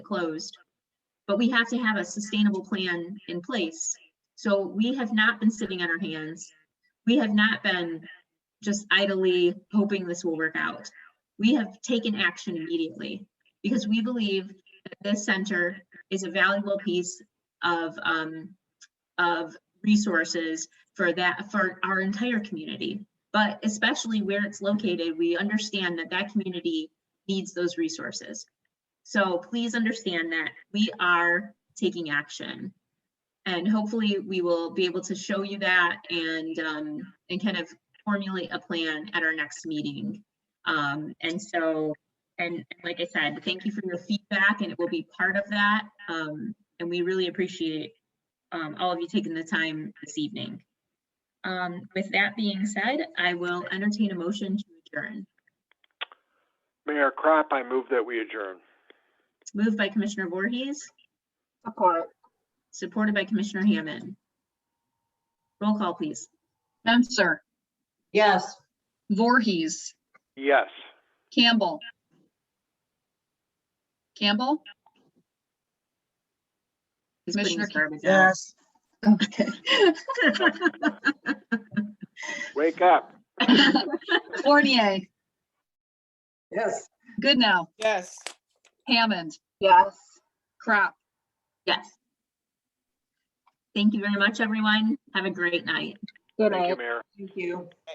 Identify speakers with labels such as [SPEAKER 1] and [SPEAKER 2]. [SPEAKER 1] closed. But we have to have a sustainable plan in place. So we have not been sitting on our hands. We have not been just idly hoping this will work out. We have taken action immediately because we believe that this center is a valuable piece of, um, of resources for that, for our entire community. But especially where it's located, we understand that that community needs those resources. So please understand that we are taking action. And hopefully we will be able to show you that and, um, and kind of formulate a plan at our next meeting. Um, and so, and and like I said, thank you for your feedback and it will be part of that. Um, and we really appreciate, um, all of you taking the time this evening. Um, with that being said, I will entertain a motion to adjourn.
[SPEAKER 2] Mayor Crop, I move that we adjourn.
[SPEAKER 1] It's moved by Commissioner Voorhees,
[SPEAKER 3] Support.
[SPEAKER 1] supported by Commissioner Hammond. Roll call, please.
[SPEAKER 4] Censor,
[SPEAKER 3] Yes.
[SPEAKER 4] Voorhees,
[SPEAKER 2] Yes.
[SPEAKER 4] Campbell. Campbell?
[SPEAKER 1] He's putting his
[SPEAKER 4] Commissioner
[SPEAKER 1] garbage out.
[SPEAKER 4] Okay.
[SPEAKER 2] Wake up.
[SPEAKER 4] Fournier,
[SPEAKER 3] Yes.
[SPEAKER 4] Goodnow,
[SPEAKER 5] Yes.
[SPEAKER 4] Hammond,
[SPEAKER 3] Yes.
[SPEAKER 4] Crop.
[SPEAKER 1] Yes. Thank you very much, everyone. Have a great night.
[SPEAKER 3] Good
[SPEAKER 2] Thank you, Mayor.
[SPEAKER 3] Thank you.